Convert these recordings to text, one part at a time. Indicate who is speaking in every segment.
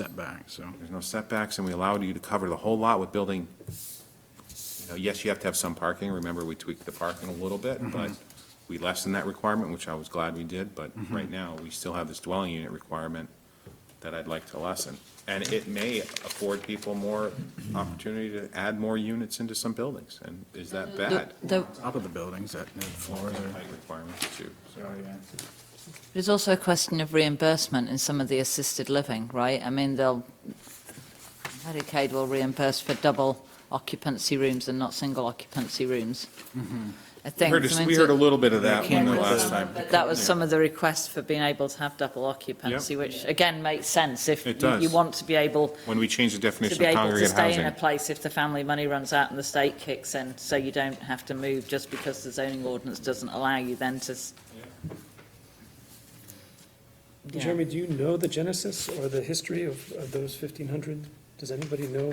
Speaker 1: setback, so.
Speaker 2: There's no setbacks, and we allowed you to cover the whole lot with building. You know, Yes, you have to have some parking, remember, we tweaked the parking a little bit, but we lessened that requirement, which I was glad we did, but right now, we still have this dwelling unit requirement that I'd like to lessen. And it may afford people more opportunity to add more units into some buildings, and is that bad?
Speaker 3: The-
Speaker 1: Top of the buildings, that, that floors are.
Speaker 2: Height requirements too, so.
Speaker 3: It's also a question of reimbursement in some of the assisted living, right? I mean, they'll, Medicaid will reimburse for double occupancy rooms and not single occupancy rooms. I think.
Speaker 2: Heard-
Speaker 3: I mean,
Speaker 2: Mm-hmm. We heard a little bit of that
Speaker 3: Yeah,
Speaker 2: when the
Speaker 3: but
Speaker 2: last
Speaker 3: some-
Speaker 2: time.
Speaker 3: but That was some of the requests for being able to have double occupancy, which again makes sense if
Speaker 2: It
Speaker 3: you- you
Speaker 2: does.
Speaker 3: want to be able
Speaker 2: When we changed the
Speaker 3: to
Speaker 2: definition
Speaker 3: be
Speaker 2: of
Speaker 3: able to
Speaker 2: congregate
Speaker 3: stay in a
Speaker 2: housing.
Speaker 3: place if the family money runs out and the state kicks in, so you don't have to move just because the zoning ordinance doesn't allow you then to. s- Yeah.
Speaker 4: Jeremy, do you know the genesis or the history of, of those fifteen hundred? Does anybody know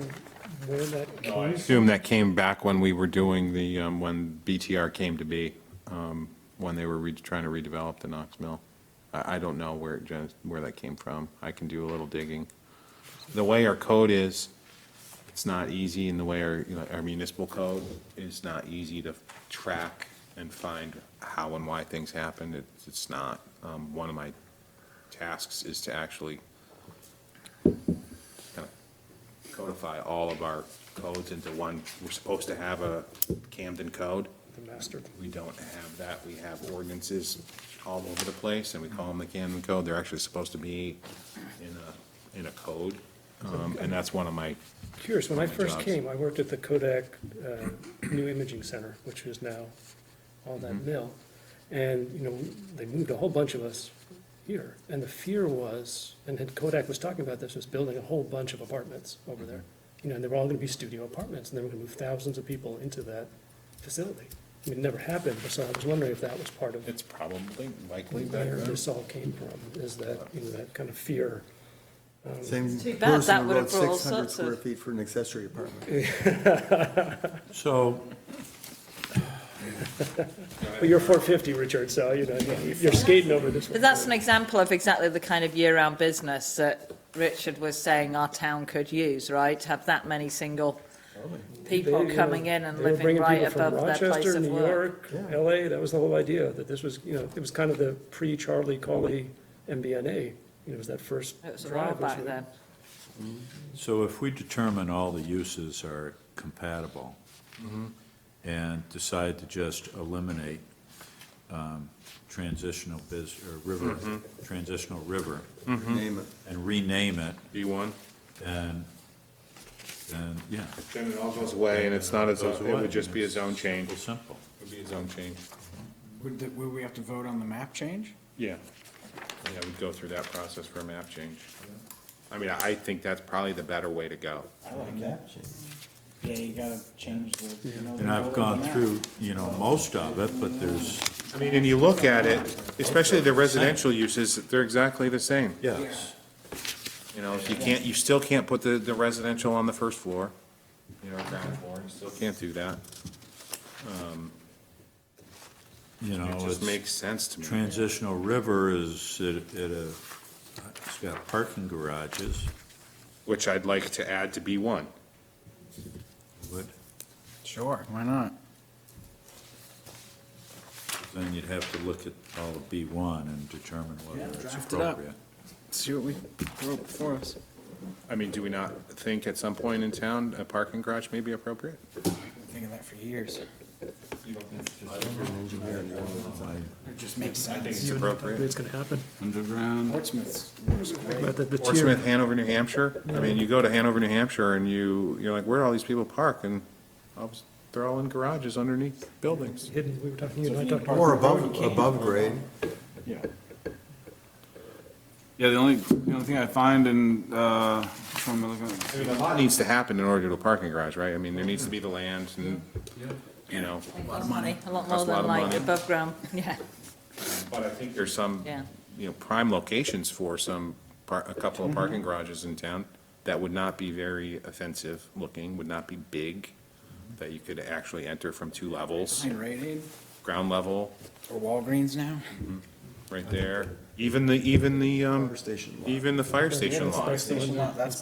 Speaker 4: where that came?
Speaker 2: assume that came back when we were doing the, um, when BTR came to be, um, when they were re- trying to redevelop the Knox Mill. I, I don't know where, it gen- where that came from. I can do a little digging. The way our code is, it's not easy, and the way our, you know, our municipal code is not easy to track and find how and why things happened. It's, it's not. Um, One of my tasks is to actually kind of codify all of our codes into one, we're supposed to have a Camden code.
Speaker 4: The master.
Speaker 2: We don't have that, we have ordinances all over the place, and we call them the Camden Code, they're actually supposed to be in a, in a code. Um, and that's one of my,
Speaker 4: Curious, when I
Speaker 2: My
Speaker 4: first
Speaker 2: jobs.
Speaker 4: came, I worked at the Kodak uh, New Imaging Center, which is now on
Speaker 2: Mm-hmm.
Speaker 4: that mill. And, you know, they moved a whole bunch of us here. And the fear was, and had- Kodak was talking about this, was building a whole bunch of apartments over there.
Speaker 2: Mm-hmm.
Speaker 4: You know, and they were all going to be studio apartments, and they were going to move thousands of people into that facility. I mean, it never happened, but so I was wondering if that was part of
Speaker 2: it's probably likely
Speaker 4: where
Speaker 2: better.
Speaker 4: this all came from, is that, you know, that kind of fear.
Speaker 5: Same
Speaker 3: Too bad, that
Speaker 5: person who
Speaker 3: would
Speaker 5: wrote
Speaker 3: have brought all
Speaker 5: six hundred
Speaker 3: sorts of-
Speaker 5: square feet for an accessory apartment.
Speaker 6: So,
Speaker 4: But you're 450, Richard, so, you know, you're skating over this one.
Speaker 3: But that's an example of exactly the kind of year-round business that Richard was saying our town could use, right? Have that many single people
Speaker 4: They, uh,
Speaker 3: coming in and
Speaker 4: they were
Speaker 3: living
Speaker 4: bringing
Speaker 3: right
Speaker 4: people from
Speaker 3: above their place
Speaker 4: Rochester,
Speaker 3: of
Speaker 4: New
Speaker 3: work.
Speaker 4: York,
Speaker 5: Yeah.
Speaker 4: LA, that was the whole idea, that this was, you know, it was kind of the pre-Charlie Colley MBNA. You know, it was that first
Speaker 3: It was a while
Speaker 4: drive. was
Speaker 3: back
Speaker 4: the-
Speaker 3: then.
Speaker 6: so if we determine all the uses are compatible
Speaker 2: Mm-hmm.
Speaker 6: and decide to just eliminate um, transitional biz, or river,
Speaker 2: Mm-hmm.
Speaker 6: transitional river,
Speaker 5: Name it.
Speaker 6: and rename it,
Speaker 2: B one?
Speaker 6: and, and, yeah.
Speaker 2: Then it all goes away, and it's not as, it
Speaker 6: Goes away.
Speaker 2: would just be a zone change.
Speaker 6: Simple, simple.
Speaker 2: It would be a zone change.
Speaker 1: Would, the- would we have to vote on the map change?
Speaker 2: Yeah. Yeah, we'd go through that process for a map change. I mean, I think that's probably the better way to go.
Speaker 1: I like that. Yeah, you gotta change the. you know,
Speaker 6: And I've
Speaker 1: the
Speaker 6: gone
Speaker 1: map.
Speaker 6: through, you know, most of it, but there's,
Speaker 2: I mean, and you look at it, especially the residential uses, they're exactly the same.
Speaker 6: yes.
Speaker 2: You know, if you can't, you still can't put the, the residential on the first floor, you know, ground floor, you still can't do that.
Speaker 6: You
Speaker 4: Oh,
Speaker 6: know,
Speaker 2: It just
Speaker 6: it's,
Speaker 2: makes sense to me.
Speaker 6: transitional river is at at a, it's got parking garages,
Speaker 2: Which I'd like to add to B one.
Speaker 6: but
Speaker 1: Sure, why not?
Speaker 6: Then you'd have to look at all of B1 and determine whether it's
Speaker 1: draft it up.
Speaker 6: appropriate.
Speaker 1: See what we wrote before us.
Speaker 2: I mean, do we not think at some point in town, a parking garage may be appropriate?
Speaker 1: Been thinking that for years. It just makes
Speaker 2: I think
Speaker 1: sense.
Speaker 2: it's appropriate.
Speaker 4: It's gonna happen,
Speaker 1: Um,
Speaker 7: Underground,
Speaker 1: Portsmouth's.
Speaker 4: but the, the tier,
Speaker 2: Portsmouth, Hanover, New Hampshire, I mean, you go to Hanover, New Hampshire and you, you're like, where do all these people park? And obs- they're all in garages underneath buildings.
Speaker 4: hidden, we were talking, you and I talked about.
Speaker 5: Or above, above grade.
Speaker 1: Yeah.
Speaker 7: yeah, the only, the only thing I find in, uh, which one am I looking at?
Speaker 2: I mean, a lot needs to happen in order to do a parking garage, right? I mean, there needs to be the land and, you know.
Speaker 3: A lot of money, a lot more
Speaker 2: Costs a lot of
Speaker 3: than like
Speaker 2: money.
Speaker 3: above ground, yeah.
Speaker 2: But I think there's some,
Speaker 3: Yeah.
Speaker 2: you know, prime locations for some, par- a couple of parking garages in town that would not be very offensive looking, would not be big, that you could actually enter from two levels,
Speaker 1: Rite Aid
Speaker 2: ground level.
Speaker 1: or Walgreens now?
Speaker 2: right there. Even the, even the, um,
Speaker 5: Fire station lot.
Speaker 2: even the fire station lot.
Speaker 1: Fire station lot, that's